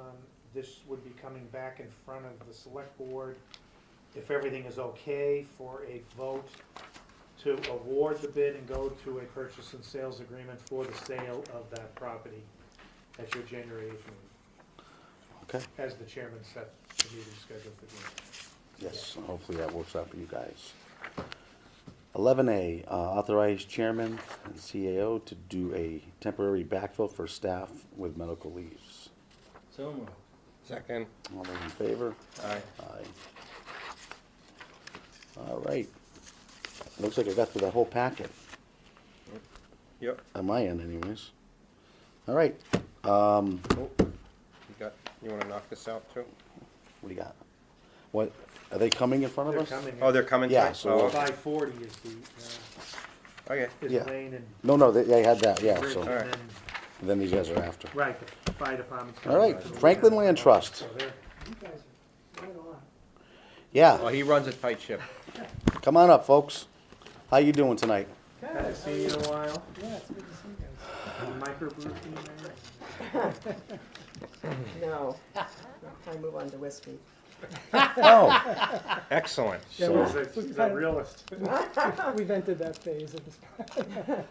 Um, this would be coming back in front of the select board, if everything is okay, for a vote to award the bid and go to a purchase and sales agreement for the sale of that property at your January eighth meeting, Okay, as the chairman set the meeting schedule for January. yes, hopefully that works out for you guys. Eleven A, uh, authorize chairman and CAO to do a temporary backfill for staff with medical leaves. So moved. Second. All those in favor? Aye. Aye. All right. Looks like I got through the whole packet, Yep. on my end anyways. All right, um, Oh, You got, you wanna knock this out too? what do you got? What, are they coming in front of They're us? coming. Oh, they're coming Yeah, too? so Oh, we'll- okay. Five forty is the, Okay, uh, Yeah. is Lane and No, no, they, they had that, Oh, yeah, Bridge, and so, then, then these guys are after. right, the fire department's. All right, coming. Franklin Land Trust, So they're- well, yeah, he runs a tight ship. come on up, folks. How you doing tonight? Haven't seen you in a while. Yeah, it's good to see you Microbrew, you know? guys. No, I move on to whiskey. Oh, Excellent. Yeah, So- we've- He's a, he's a realist. we've entered that phase at this point.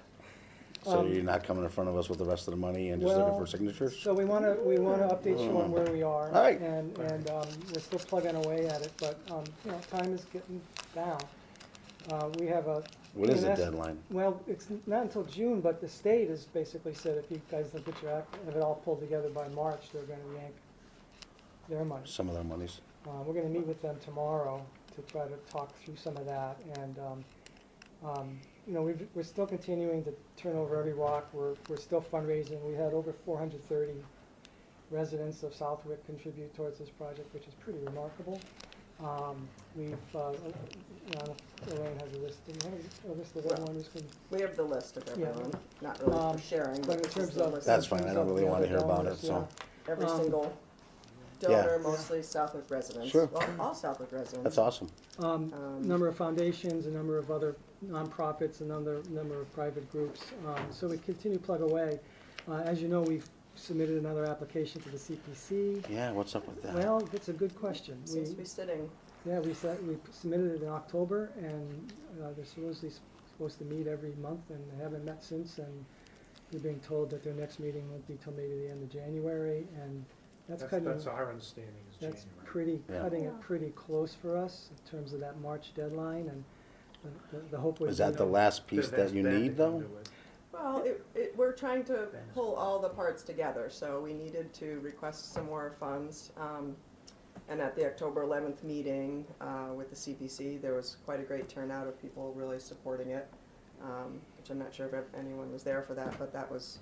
so you're not coming in front of us with the rest of the money and just looking Um, Well, for signatures? So we want to, we want to update you on where we are. All right. And, and um, we're still plugging away at it, but, um, you know, time is getting down. Uh, We have a. What is the EMS deadline? Well, it's not until June, but the state has basically said if you guys don't get your act, have it all pulled together by March, they're going to yank their money. Some of their monies. Uh, we're gonna meet with them tomorrow to try to talk through some of that, and, um, um, you know, we've, we're still continuing to turn over every rock, we're, we're still fundraising, we had over four hundred thirty residents of Southwick contribute towards this project, which is pretty remarkable. Um, we've, uh, you know, Elaine has a list, do you have a list of Well, everyone who's been, We have the list of Yeah. everyone, not really Um, for sharing, but but in it's just terms the of. list. That's in fine, I terms don't of really the wanna other hear about donors, it, so- yeah. Every um, single Yeah. donor, mostly Southwick residents. Sure. Well, all Southwick residents. That's awesome. um, Um, number of foundations, a number of other nonprofits, a number, number of private groups. Um, So we continue to plug away. Uh, As you know, we've submitted another application to the CPC. Yeah, what's up with that? Well, that's a good question. Seems to be We, sitting. yeah, we said, we submitted it in October, and uh, they're supposedly s- supposed to meet every month, and they haven't met since, and we're being told that their next meeting won't be till maybe the end of January, and that's That's, cutting. that's our understanding is January. That's pretty, Yeah. cutting it pretty close for us in terms of that March deadline, and the- the, the hope would be. Is that the last piece that you need though? Well, it, it, we're trying to Then it's- pull all the parts together, so we needed to request some more funds. Um, and at the October eleventh meeting, uh, with the CPC, there was quite a great turnout of people really supporting it. Um, which I'm not sure if anyone was there for that, but that was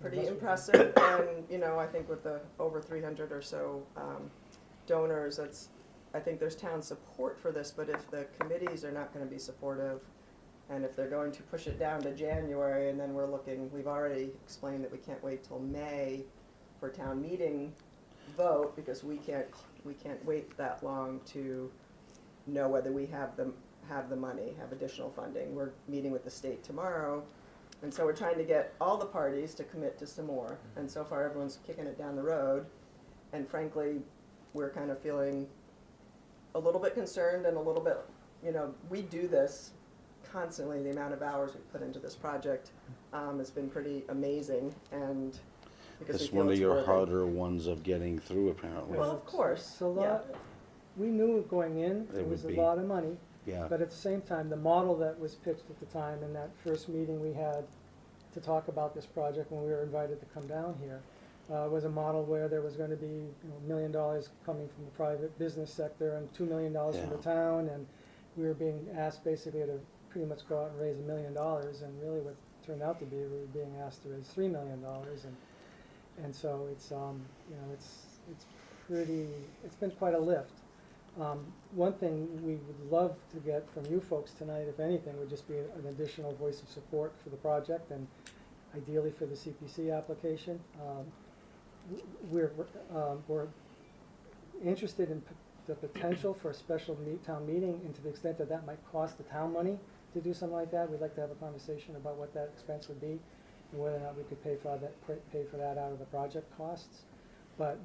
pretty impressive. And, you know, I think with the over three hundred or so, um, donors, that's, I think there's town support for this, but if the committees are not gonna be supportive, and if they're going to push it down to January, and then we're looking, we've already explained that we can't wait till May for town meeting vote, because we can't, we can't wait that long to know whether we have the, have the money, have additional funding. We're meeting with the state tomorrow, and so we're trying to get all the parties to commit to some more. And so far, everyone's kicking it down the road, and frankly, we're kind of feeling a little bit concerned and a little bit, you know, we do this constantly, the amount of hours we put into this project, um, has been pretty amazing, and because we It's feel one of it's your worthy. harder ones of getting through apparently. Well, of course, It's a lot, we knew going in, It it was a would be. lot of money, Yeah, but at the same time, the model that was pitched at the time in that first meeting we had to talk about this project when we were invited to come down here, uh, was a model where there was gonna be, you know, a million dollars coming from the private business sector and two million dollars from the Yeah. town, and we were being asked basically to pretty much go out and raise a million dollars, and really what it turned out to be, we were being asked to raise three million dollars, and, and so it's, um, you know, it's, it's pretty, it's been quite a lift. Um, one thing we would love to get from you folks tonight, if anything, would just be an additional voice of support for the project, and ideally for the CPC application. Um, w- We're, um, we're interested in p- the potential for a special meet, town meeting, and to the extent that that might cost the town money to do something like that, we'd like to have a conversation about what that expense would be, and whether or not we could pay for that, pay for that out of the project costs. But